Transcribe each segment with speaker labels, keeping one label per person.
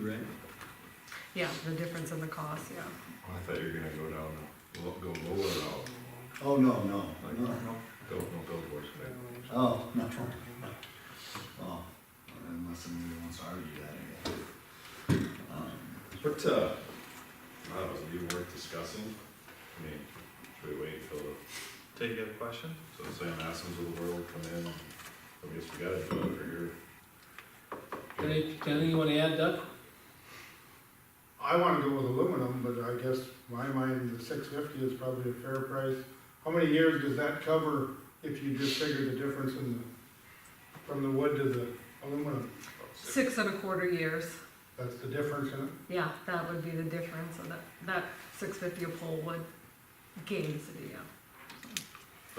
Speaker 1: right?
Speaker 2: Yeah, the difference in the cost, yeah.
Speaker 3: I thought you were gonna go down, lo- go lower out,
Speaker 1: Oh, no, no, no,
Speaker 3: go, no, go towards that.
Speaker 1: oh, no. Oh, unless somebody wants to argue that, I guess. Um,
Speaker 3: But, uh, I don't know, is it even worth discussing? I mean, should we wait till, the-
Speaker 4: Take you have a question?
Speaker 3: so the Sam Assens of the world come in? I guess we gotta do it for here.
Speaker 5: Any- Anything you wanna add, Doug?
Speaker 6: I wanna go with aluminum, but I guess my mind, the six fifty is probably a fair price. How many years does that cover if you just figure the difference in the, from the wood to the aluminum?
Speaker 2: Six and a quarter years,
Speaker 6: That's the difference in it?
Speaker 2: yeah, that would be the difference, and that, that six fifty a pole would gain the city, yeah.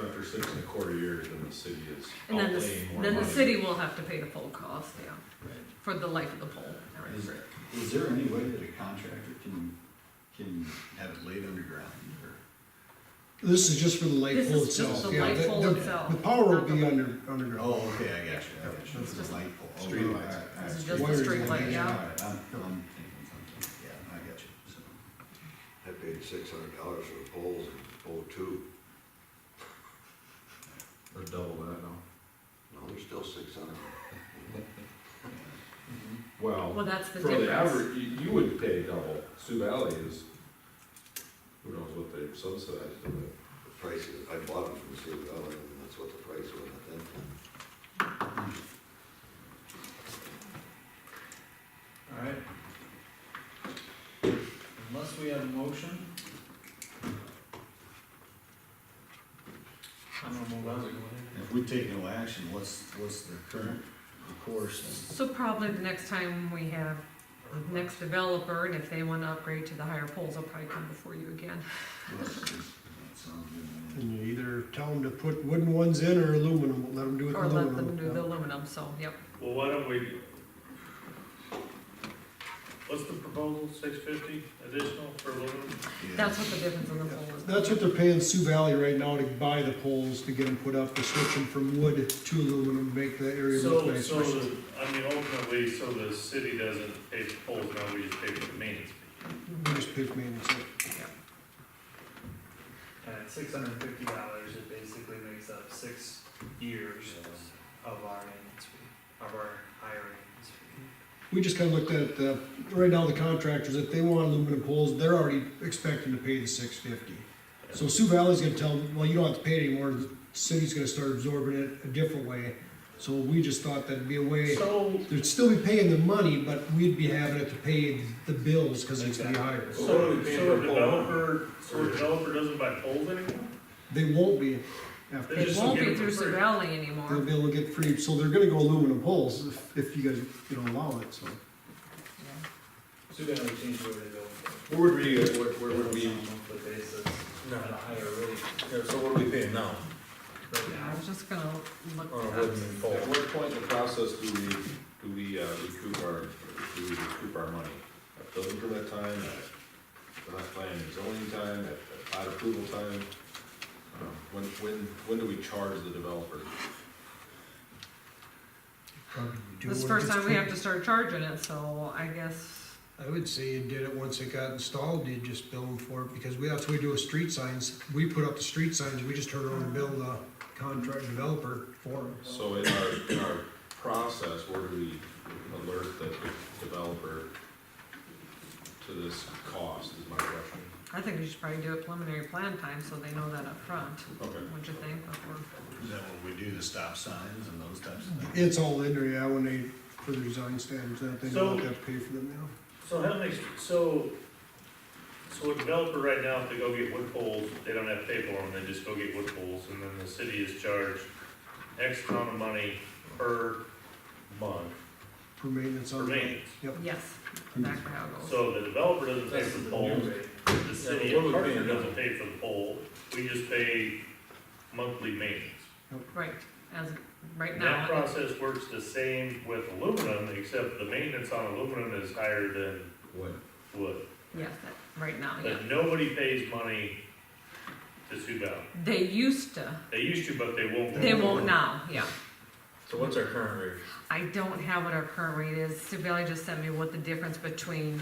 Speaker 3: After six and a quarter years, then the city is
Speaker 2: And then the,
Speaker 3: outlaying more money.
Speaker 2: then the city will have to pay the full cost, yeah,
Speaker 1: Right.
Speaker 2: for the life of the pole.
Speaker 1: Is, is there any way that a contractor can, can have it laid underground, or?
Speaker 7: This is just for the light
Speaker 2: This
Speaker 7: pole
Speaker 2: is just
Speaker 7: itself.
Speaker 2: the
Speaker 7: yeah,
Speaker 2: light
Speaker 7: the-
Speaker 2: pole
Speaker 7: the-
Speaker 2: itself,
Speaker 7: The power
Speaker 2: not
Speaker 7: will
Speaker 2: the
Speaker 7: be
Speaker 2: light.
Speaker 7: under, underground.
Speaker 1: Oh, okay, I got you, I got you,
Speaker 2: It's
Speaker 1: it's
Speaker 2: just-
Speaker 1: a light pole. Oh,
Speaker 3: Street
Speaker 1: all
Speaker 3: lights.
Speaker 1: right, all
Speaker 2: This is just
Speaker 1: right.
Speaker 2: the
Speaker 7: Wiring
Speaker 2: street
Speaker 7: and
Speaker 2: light,
Speaker 7: everything.
Speaker 1: All
Speaker 2: yeah.
Speaker 1: right, I'm, I'm thinking something, yeah, I got you, so.
Speaker 8: I paid six hundred dollars for the poles in oh-two,
Speaker 3: Or double that, no?
Speaker 8: no, they're still six hundred.
Speaker 2: Well,
Speaker 1: Mm-hmm.
Speaker 3: Well,
Speaker 2: that's the
Speaker 3: for the
Speaker 2: difference.
Speaker 3: average, you, you would pay double. Sioux Valley is, who knows what they subsidized it with.
Speaker 8: The price is, I bought them from Sioux Valley, and that's what the price was at that time.
Speaker 4: Alright. Unless we have a motion. I'm gonna move on.
Speaker 1: If we take no action, what's, what's the current course?
Speaker 2: So probably the next time we have the next developer, and if they wanna upgrade to the higher poles, I'll probably come before you again.
Speaker 1: That sounds good.
Speaker 7: And you either tell them to put wooden ones in or aluminum, let them do it
Speaker 2: Or let them do the
Speaker 7: aluminum.
Speaker 2: aluminum, so, yep.
Speaker 9: Well, why don't we, what's the proposal, six fifty additional for aluminum?
Speaker 1: Yeah.
Speaker 2: That's what the difference in the pole is.
Speaker 7: That's what they're paying Sioux Valley right now to buy the poles, to get them put up, to switch them from wood to aluminum, make the area look
Speaker 9: So,
Speaker 7: nicer.
Speaker 9: so, the- I mean, ultimately, so the city doesn't pay for poles, now we just pay for the maintenance.
Speaker 7: We just pay for maintenance.
Speaker 4: And at six hundred and fifty dollars, it basically makes up six years of our maintenance fee, of our higher maintenance fee.
Speaker 7: We just kinda looked at, uh, right now the contractors, if they want aluminum poles, they're already expecting to pay the six fifty. So Sioux Valley's gonna tell them, well, you don't have to pay it anymore, the city's gonna start absorbing it a different way. So we just thought that'd be a way,
Speaker 4: So,
Speaker 7: they'd still be paying the money, but we'd be having it to pay the bills, cause it's gonna be higher.
Speaker 3: So what are
Speaker 9: So,
Speaker 3: we paying
Speaker 9: so
Speaker 3: for
Speaker 9: a
Speaker 3: pole?
Speaker 9: developer, so a developer doesn't buy poles anymore?
Speaker 7: They won't be after,
Speaker 9: They
Speaker 2: It
Speaker 9: just
Speaker 7: they'll
Speaker 2: won't
Speaker 9: give
Speaker 2: be
Speaker 9: it for
Speaker 2: through Sioux
Speaker 9: free.
Speaker 2: Valley anymore.
Speaker 7: be able to get free, so they're gonna go aluminum poles if, if you guys, you know, allow it, so.
Speaker 4: too bad we changed the way they go.
Speaker 3: Where would we, where, where would we, uh,
Speaker 4: Monthly basis, at a higher rate.
Speaker 3: so what are we paying now?
Speaker 4: right
Speaker 2: Yeah, I
Speaker 4: now.
Speaker 2: was just gonna look
Speaker 9: Oh,
Speaker 3: At
Speaker 2: that up.
Speaker 3: what point in the process do we, do we uh, recoup our, do we recoup our money? At building permit time, at not planning and zoning time, at at plat approval time? Um, When, when, when do we charge the developer?
Speaker 2: This is the first time we have to start charging it, so I guess,
Speaker 7: I would say you did it once it got installed, you just bill them for it, because we, that's what we do with street signs, we put up the street signs, we just turn around and bill the contract developer for it.
Speaker 3: So in our, in our process, where do we alert the developer to this cost is my question?
Speaker 2: I think we should probably do a preliminary plan time, so they know that up front.
Speaker 3: Okay.
Speaker 2: What'd you think before?
Speaker 1: Is that what we do, the stop signs and those types of things?
Speaker 7: It's all in there, yeah, when they, for the design standards, that they don't
Speaker 9: So-
Speaker 7: have to pay for them now.
Speaker 9: So how many, so, so a developer right now, if they go get wood poles, they don't have to pay for them, they just go get wood poles, and then the city is charged X amount of money per month
Speaker 7: For maintenance
Speaker 9: for
Speaker 7: on.
Speaker 9: maintenance.
Speaker 2: Yes, back to how it goes.
Speaker 9: So the developer doesn't pay
Speaker 4: That's
Speaker 9: for
Speaker 4: the
Speaker 9: the
Speaker 4: new
Speaker 9: poles,
Speaker 4: rate.
Speaker 9: the city
Speaker 4: Yeah, what
Speaker 9: of
Speaker 4: we
Speaker 9: Hartford
Speaker 4: paying now?
Speaker 9: doesn't pay for the pole, we just pay monthly maintenance.
Speaker 2: Right, as, right
Speaker 9: And that
Speaker 2: now,
Speaker 9: process works the same with aluminum, except the maintenance on aluminum is higher than
Speaker 3: What?
Speaker 9: wood.
Speaker 2: yes, that- right now, yeah.
Speaker 9: But nobody pays money to Sioux Valley.
Speaker 2: They used to,
Speaker 9: They used to, but they won't.
Speaker 2: they won't now, yeah.
Speaker 9: So what's our current rate?
Speaker 2: I don't have what our current rate is. Sioux Valley just sent me what the difference between